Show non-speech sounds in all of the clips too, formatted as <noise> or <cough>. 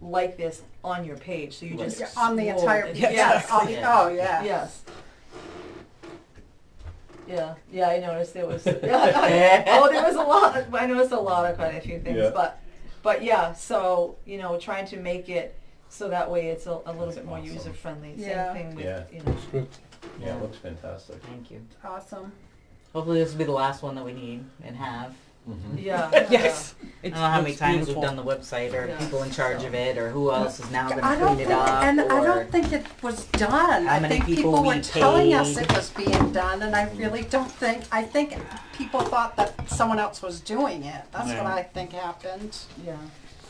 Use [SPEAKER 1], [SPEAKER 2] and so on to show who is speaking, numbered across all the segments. [SPEAKER 1] like this on your page, so you
[SPEAKER 2] Right.
[SPEAKER 1] just.
[SPEAKER 3] Yeah, on the
[SPEAKER 1] scroll
[SPEAKER 3] entire
[SPEAKER 1] it.
[SPEAKER 3] page.
[SPEAKER 1] Yes.
[SPEAKER 3] Yes. on the-
[SPEAKER 2] Yeah.
[SPEAKER 3] Oh, yeah.
[SPEAKER 1] Yes. Yeah, yeah, I noticed there
[SPEAKER 4] <laughs>
[SPEAKER 1] was, <laughs> oh, there was a lot, I noticed a lot of quite a few
[SPEAKER 4] Yeah.
[SPEAKER 1] things, but, but yeah, so, you know, trying to make it so that way it's a, a little
[SPEAKER 4] That's
[SPEAKER 1] bit more
[SPEAKER 4] awesome.
[SPEAKER 1] user friendly,
[SPEAKER 3] Yeah.
[SPEAKER 1] same thing
[SPEAKER 4] Yeah.
[SPEAKER 1] with, you know.
[SPEAKER 4] Yeah, it looks fantastic.
[SPEAKER 2] Thank you.
[SPEAKER 3] Awesome.
[SPEAKER 2] Hopefully this will be the last one that we need and have.
[SPEAKER 4] Mhm.
[SPEAKER 1] Yeah.
[SPEAKER 4] <laughs>
[SPEAKER 5] Yes.
[SPEAKER 2] I don't know how many times we've done the website or
[SPEAKER 1] Yeah.
[SPEAKER 2] people in charge of it or who else is now going
[SPEAKER 3] I
[SPEAKER 2] to
[SPEAKER 3] don't
[SPEAKER 2] clean
[SPEAKER 3] think,
[SPEAKER 2] it up.
[SPEAKER 3] and
[SPEAKER 2] or
[SPEAKER 3] I don't think it was done.
[SPEAKER 2] How
[SPEAKER 3] I
[SPEAKER 2] many
[SPEAKER 3] think
[SPEAKER 2] people
[SPEAKER 3] people
[SPEAKER 2] we
[SPEAKER 3] were telling us
[SPEAKER 2] paid.
[SPEAKER 3] it was being done, and I really don't think, I think people thought that someone else was doing it. That's what
[SPEAKER 5] Yeah.
[SPEAKER 3] I think happened.
[SPEAKER 1] Yeah,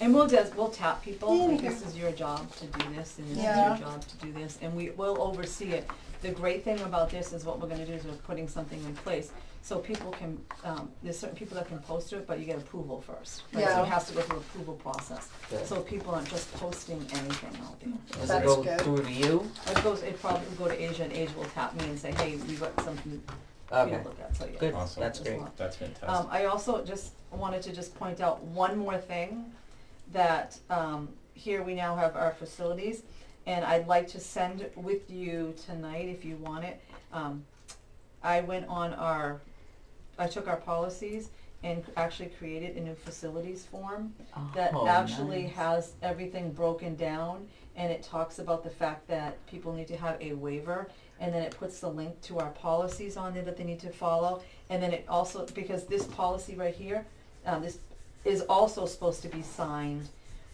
[SPEAKER 1] and we'll just, we'll tap people, like,
[SPEAKER 3] Yeah.
[SPEAKER 1] this is your job to do this, and this is
[SPEAKER 3] Yeah.
[SPEAKER 1] your job to do this, and we will oversee it. The great thing about this is what we're gonna do is we're putting something in place, so people can, um, there's certain people that can post it, but you get approval first. right? So
[SPEAKER 3] Yeah.
[SPEAKER 1] it has to go through approval process,
[SPEAKER 2] Good.
[SPEAKER 1] so people aren't just posting anything out there.
[SPEAKER 2] Does it
[SPEAKER 3] That's
[SPEAKER 2] go
[SPEAKER 3] good.
[SPEAKER 2] through to you?
[SPEAKER 1] It goes, it probably will go to Asia, and Asia will tap me and say, hey, we got something, you
[SPEAKER 2] Okay.
[SPEAKER 1] know, look at, so yeah.
[SPEAKER 2] Good.
[SPEAKER 4] Awesome.
[SPEAKER 2] That's
[SPEAKER 1] There's a
[SPEAKER 2] great.
[SPEAKER 1] lot.
[SPEAKER 4] That's
[SPEAKER 1] Um,
[SPEAKER 4] fantastic.
[SPEAKER 1] I also just wanted to just point out one more thing, that, um, here we now have our facilities, and I'd like to send with you tonight if you want it. Um, I went on our, I took our policies and actually created a new facilities form that
[SPEAKER 2] Oh,
[SPEAKER 1] actually
[SPEAKER 2] nice.
[SPEAKER 1] has everything broken down, and it talks about the fact that people need to have a waiver, and then it puts the link to our policies on there that they need to follow, and then it also, because this policy right here, um, this is also supposed to be signed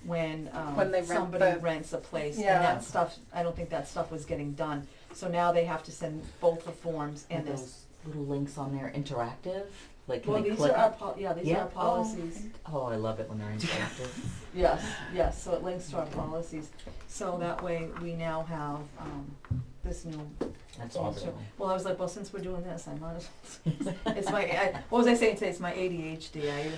[SPEAKER 1] when,
[SPEAKER 3] When they
[SPEAKER 1] um,
[SPEAKER 3] rent
[SPEAKER 1] somebody
[SPEAKER 3] the-
[SPEAKER 1] rents a place, and
[SPEAKER 3] Yeah.
[SPEAKER 1] that stuff, I don't think that stuff was getting done. So now they have to send both the forms
[SPEAKER 2] Are
[SPEAKER 1] and this,
[SPEAKER 2] those little links on there interactive? Like can
[SPEAKER 1] well,
[SPEAKER 2] they
[SPEAKER 1] these
[SPEAKER 2] click?
[SPEAKER 1] are our, pol- yeah, these are
[SPEAKER 2] Yeah.
[SPEAKER 1] our
[SPEAKER 2] Oh,
[SPEAKER 1] policies.
[SPEAKER 2] oh, I love it
[SPEAKER 1] <laughs>
[SPEAKER 2] when they're interactive.
[SPEAKER 1] Yes, yes, so it links to our policies, so that way we now have, um, this new,
[SPEAKER 2] That's
[SPEAKER 4] Awesome.
[SPEAKER 2] wonderful.
[SPEAKER 1] well, I was like, well, since we're doing this, I might as well. <laughs> It's my, I, what was I saying today, it's my ADHD, I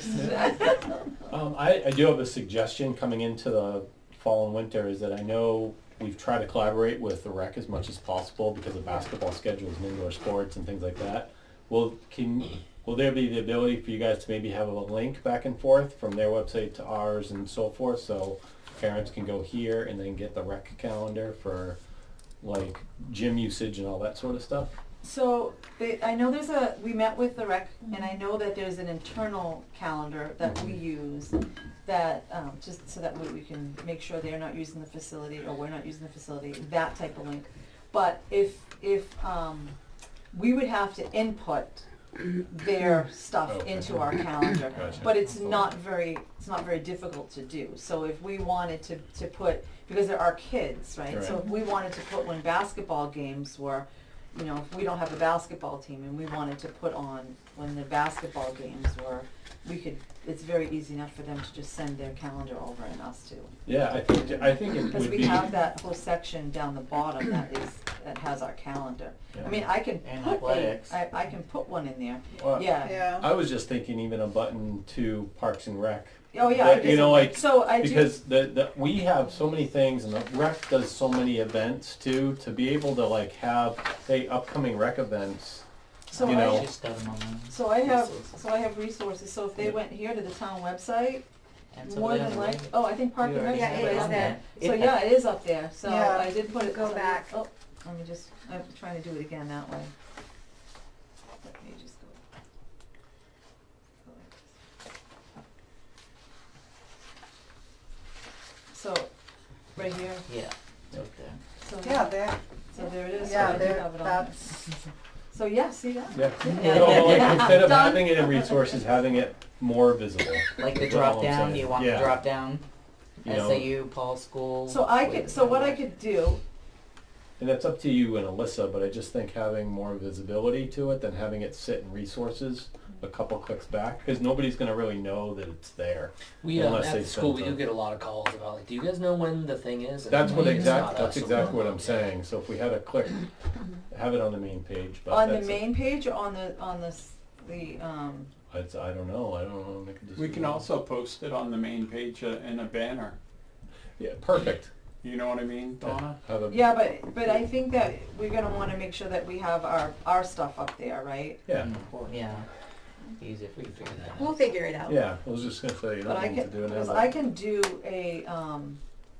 [SPEAKER 1] just,
[SPEAKER 4] Um, I, I do have a suggestion coming into the fall and winter is that I know we've tried to collaborate with the rec as much as possible because of basketball schedules and indoor sports and things like that. Will, can, will there be the ability for you guys to maybe have a link back and forth from their website to ours and so forth? So parents can go here and then get the rec calendar for like gym usage and all that sort of stuff?
[SPEAKER 1] So, they, I know there's a, we met with the rec, and I know that there's an internal calendar that we use that, um, just so that we, we can make sure they're not using the facility, or we're not using the facility, that type of link. But if, if, um, we would have to input their stuff
[SPEAKER 4] Okay.
[SPEAKER 1] into our calendar.
[SPEAKER 4] Gotcha.
[SPEAKER 1] But it's not very, it's not very difficult to do. So if we wanted to, to put, because there are kids, right? So
[SPEAKER 4] Correct.
[SPEAKER 1] if we wanted to put when basketball games were, you know, if we don't have a basketball team and we wanted to put on when the basketball games were, we could, it's very easy enough for them to just send their calendar over and us too.
[SPEAKER 4] Yeah, I think, I think it would be.
[SPEAKER 1] Because we have that whole section down the bottom that is, that has our calendar. I
[SPEAKER 4] Yeah.
[SPEAKER 1] mean, I can
[SPEAKER 2] And
[SPEAKER 1] put a,
[SPEAKER 2] athletics.
[SPEAKER 1] I, I can put one in there,
[SPEAKER 4] Well,
[SPEAKER 1] yeah.
[SPEAKER 3] Yeah.
[SPEAKER 4] I was just thinking even a button to Parks and Rec.
[SPEAKER 1] Oh, yeah. I
[SPEAKER 4] That, you
[SPEAKER 1] guess-
[SPEAKER 4] know, like,
[SPEAKER 1] So I do,
[SPEAKER 4] because the, the, we have so many things and the rec does so many events too, to be able to like have, say, upcoming rec events.
[SPEAKER 1] so
[SPEAKER 4] you know.
[SPEAKER 1] I,
[SPEAKER 2] Just got 'em online.
[SPEAKER 1] so I have,
[SPEAKER 2] Resources.
[SPEAKER 1] so I have resources, so if they
[SPEAKER 4] Yeah.
[SPEAKER 1] went here to the town website,
[SPEAKER 2] And so
[SPEAKER 1] more
[SPEAKER 2] they have
[SPEAKER 1] than
[SPEAKER 2] a
[SPEAKER 1] like,
[SPEAKER 2] link.
[SPEAKER 1] oh, I think Park
[SPEAKER 2] You
[SPEAKER 1] and Rec
[SPEAKER 2] already
[SPEAKER 1] is
[SPEAKER 5] Yeah,
[SPEAKER 2] have
[SPEAKER 5] it is
[SPEAKER 2] on
[SPEAKER 5] there.
[SPEAKER 1] So yeah, it is up there, so
[SPEAKER 3] Yeah.
[SPEAKER 1] I did put it.
[SPEAKER 5] Go
[SPEAKER 1] so I-
[SPEAKER 5] back.
[SPEAKER 1] Oh, let me just, I'm trying to do it again that way. Let me just go. go like this. So, right here,
[SPEAKER 2] <laughs> Yeah. It's up there.
[SPEAKER 1] so,
[SPEAKER 3] Yeah, there,
[SPEAKER 1] so there it is, so I
[SPEAKER 3] yeah,
[SPEAKER 1] do
[SPEAKER 3] there,
[SPEAKER 1] have it on there.
[SPEAKER 3] that's,
[SPEAKER 1] So yeah, see that?
[SPEAKER 4] Yeah.
[SPEAKER 1] Yeah.
[SPEAKER 4] No, like, instead of
[SPEAKER 1] Done.
[SPEAKER 4] having it in resources, having it more visible.
[SPEAKER 2] Like the
[SPEAKER 4] That's all
[SPEAKER 2] drop
[SPEAKER 4] I'm
[SPEAKER 2] down,
[SPEAKER 4] saying.
[SPEAKER 2] do you want
[SPEAKER 4] Yeah,
[SPEAKER 2] the drop down?
[SPEAKER 4] you know,
[SPEAKER 2] SAU, Paul School.
[SPEAKER 1] So I could, so what I could do,
[SPEAKER 4] And that's up to you and Alyssa, but I just think having more visibility to it than having it sit in resources a couple clicks back, because nobody's gonna really know that it's there.
[SPEAKER 6] We um,
[SPEAKER 4] Unless
[SPEAKER 6] at
[SPEAKER 4] they
[SPEAKER 6] the school
[SPEAKER 4] send
[SPEAKER 6] we do
[SPEAKER 4] them.
[SPEAKER 6] get a lot of calls about like, do you guys know when the thing is? And
[SPEAKER 4] That's
[SPEAKER 6] it's
[SPEAKER 4] what
[SPEAKER 6] like, it's
[SPEAKER 4] exact,
[SPEAKER 6] not
[SPEAKER 4] that's
[SPEAKER 6] us, so we
[SPEAKER 4] exactly
[SPEAKER 6] don't
[SPEAKER 4] what
[SPEAKER 6] know.
[SPEAKER 4] I'm saying, so if we had a click, have it on the main page, but
[SPEAKER 1] on the
[SPEAKER 4] that's it.
[SPEAKER 1] main page or on the, on the, s- the, um,
[SPEAKER 4] It's, I don't know, I don't know, make a decision.
[SPEAKER 5] We can also post it on the main page uh, in a banner.
[SPEAKER 4] Yeah, perfect.
[SPEAKER 5] You know what I mean, Donna?
[SPEAKER 4] Have a,
[SPEAKER 1] yeah, but, but I think that we're gonna wanna make sure that we have our, our stuff up there, right?
[SPEAKER 4] yeah,
[SPEAKER 2] Yeah. Easy if we
[SPEAKER 6] We
[SPEAKER 2] can
[SPEAKER 6] can
[SPEAKER 2] figure
[SPEAKER 6] figure
[SPEAKER 2] that
[SPEAKER 6] that out.
[SPEAKER 2] out.
[SPEAKER 5] We'll
[SPEAKER 3] figure it out.
[SPEAKER 4] yeah, I was just gonna say, you
[SPEAKER 1] But
[SPEAKER 4] don't
[SPEAKER 1] I
[SPEAKER 4] need to
[SPEAKER 1] can,
[SPEAKER 4] do it now,
[SPEAKER 1] because
[SPEAKER 4] but-
[SPEAKER 1] I can do a, um,